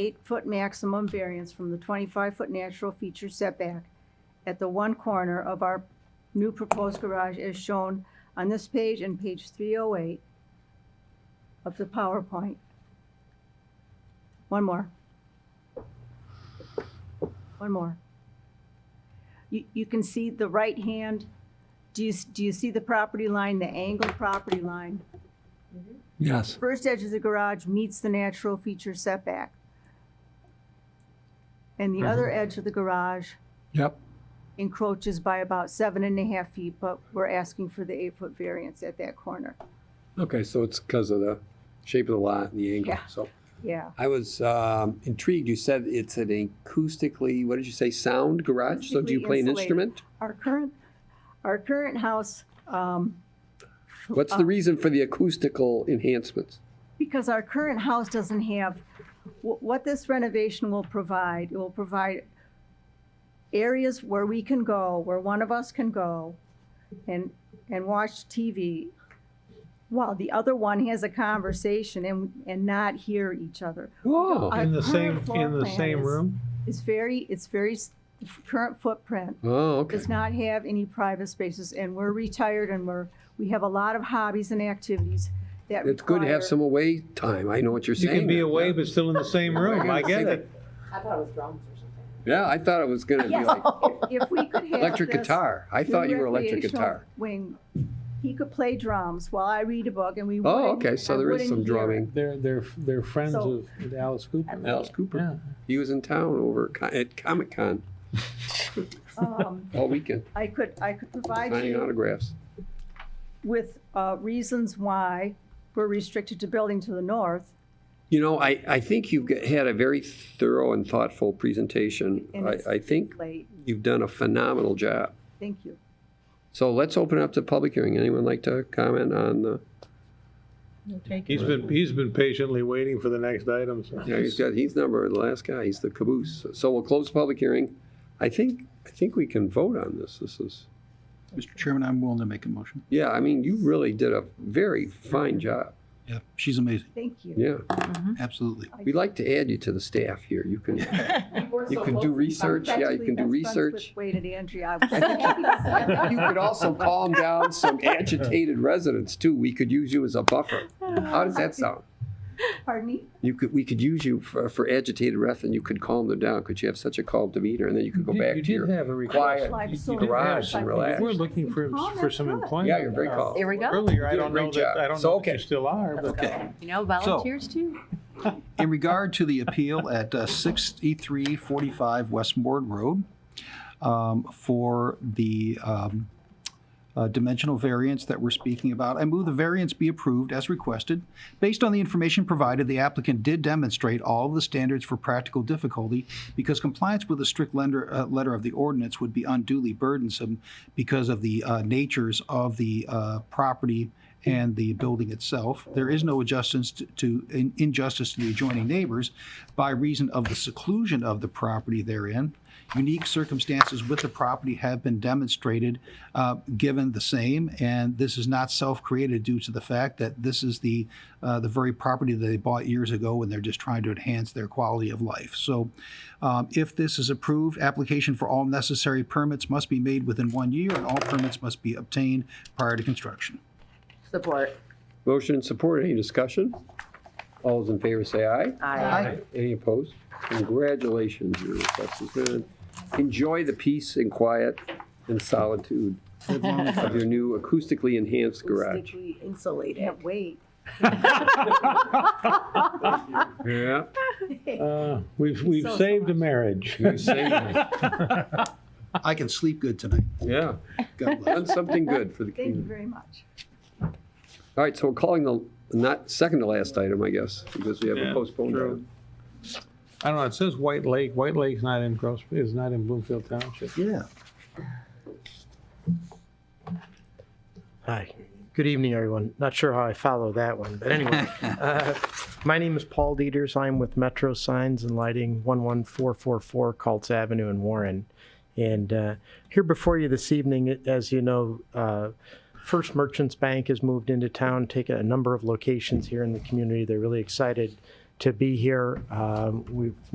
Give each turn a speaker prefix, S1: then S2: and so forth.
S1: eight-foot maximum variance from the twenty-five-foot natural feature setback at the one corner of our new proposed garage as shown on this page and page three oh eight of the PowerPoint. One more. One more. You, you can see the right hand, do you, s- do you see the property line, the angled property line?
S2: Yes.
S1: First edge of the garage meets the natural feature setback. And the
S2: Mm-hmm.
S1: other edge of the garage
S2: Yep.
S1: encroaches by about seven and a half feet, but we're asking for the eight-foot variance at that corner.
S2: Okay, so it's because of the shape of the lot and the angle.
S1: Yeah.
S2: So
S1: Yeah.
S2: I was um, intrigued. You said it's an acoustically, what did you say, sound garage? So do you
S1: Acoustically
S2: play an
S1: insulated.
S2: instrument?
S1: Our current, our current house, um,
S2: What's the reason for the acoustical enhancements?
S1: Because our current house doesn't have, wh- what this renovation will provide, it will provide areas where we can go, where one of us can go and, and watch TV while the other one has a conversation and, and not hear each other.
S2: Oh,
S1: I-
S3: In
S1: Our
S3: the same,
S1: current floor
S3: in the
S1: plan
S3: same
S1: is-
S3: room?
S1: It's very, it's very, s- current footprint
S2: oh, okay.
S1: does not have any private spaces and we're retired and we're, we have a lot of hobbies and activities that
S2: It's good to
S1: require-
S2: have some away time. I know what you're
S3: You
S2: saying.
S3: can be
S2: there.
S3: away, but still in the same room. I get it.
S4: I thought it was drums or something.
S2: Yeah, I thought it was gonna be
S1: Yes, Oh,
S2: like
S1: if, if we could have
S2: electric
S1: just-
S2: guitar. I thought you were electric
S1: recreational
S2: guitar.
S1: Wing, he could play drums while I read a book and we would
S2: Oh, okay, so there is some drumming.
S5: They're, they're, they're friends
S1: So-
S5: of with Alice Cooper.
S2: Alice
S5: Yeah.
S2: Cooper, he was in town over co- at Comic Con
S1: Um,
S2: all weekend,
S1: I could, I could provide
S2: signing
S1: you
S2: autographs.
S1: with, uh, reasons why we're restricted to building to the north.
S2: You know, I, I think you've g- had a very thorough and thoughtful presentation.
S1: And it's-
S2: I, I think
S1: Late,
S2: you've done a phenomenal job.
S1: thank you.
S2: So let's open up the public hearing. Anyone like to comment on the,
S3: He's been, he's been patiently waiting for the next item. so-
S2: yeah, he's got, he's number, the last guy, he's the caboose. So we'll close the public hearing. I think, I think we can vote on this. This is,
S6: Mr. Chairman, I'm willing to make a motion.
S2: yeah, I mean, you really did a very fine job.
S6: Yeah. She's amazing,
S1: Thank you.
S2: Yeah.
S6: absolutely.
S2: We'd like to add you to the staff here. You can,
S4: We were
S2: you
S4: so
S2: can
S4: close
S2: do
S4: to
S2: research. Yeah, you
S1: Practically
S2: can do
S1: best friends
S2: research.
S1: with Wade and Andrea.
S2: I think you- I think you could also calm down some agitated residents too. We could use you as a buffer. How does that sound?
S1: Pardon me?
S2: You could, we could use you for, for agitated rest and you could calm them down because you have suchch a calm demeanor and then you could go
S5: You-
S2: back
S5: you
S2: to
S5: did
S2: your.
S5: have a
S2: quiet
S5: request.
S1: Life
S5: You- you
S1: so
S5: did have
S2: garage
S5: something.
S2: and relax.
S5: We're looking for,
S1: Oh,
S5: for
S1: that's
S5: some
S1: good.
S5: employment.
S2: Yeah, you're very calm.
S4: There we go.
S2: You're
S3: uh, Earlier, I
S2: doing a
S3: don't
S2: great
S3: know
S2: job.
S3: that, I don't
S2: So,
S3: know that
S2: okay.
S3: you still are, but.
S6: Okay.
S4: You know, volunteers too.
S6: In regard to the appeal at uh, 6345 West Westmore Road um, for the um, uh, dimensional variance that we're speaking about, I move the variance be approved as requested. Based on the information provided, the applicant did demonstrate all of the standards for practical difficulty because compliance with the strict lender, uh, letter of the ordinance would be unduly burdensome because of the uh, natures of the uh, property and the building itself. There is no adjustments to- to, in- injustice to the adjoining neighbors by reason of the seclusion of the property therein. Unique circumstances with the property have been demonstrated, uh, given the same, and this is not self-created due to the fact that this is the, uh, the very property that they bought years ago, and they're just trying to enhance their quality of life. So um, If this is approved, application for all necessary permits must be made within one year, and all permits must be obtained prior to construction.
S4: Support.
S2: Motion and support. Any discussion? All those in favor say aye.
S4: Aye.
S2: Any opposed? Congratulations, your request has been. Enjoy the peace and quiet and solitude of your new acoustically enhanced garage.
S4: Acoustically Insulated.
S1: Can't wait.
S2: Yeah.
S3: Uh, We've, we've
S1: So
S3: saved a
S1: much.
S3: marriage.
S6: I can sleep good tonight.
S2: Yeah,
S6: God bless.
S2: done something good for the
S1: Thank you
S2: community.
S1: very much.
S2: All right, so we're calling the, not second to last item, I guess, because we have a
S3: Yeah,
S2: postponed
S3: true.
S2: item.
S3: I don't know, it says White Lake. White Lake's not in Gross, is not in Bloomfield Township.
S6: Yeah.
S7: Hi. Good evening, everyone. Not sure how I follow that one, but anyway. uh, My name is Paul Dieters. I'm with Metro Signs and Lighting 11444 Colts Avenue in Warren. And uh, here before you this evening, as you know, uh, First Merchants Bank has moved into town, taken a number of locations here in the community. They're really excited to be here. Um, We've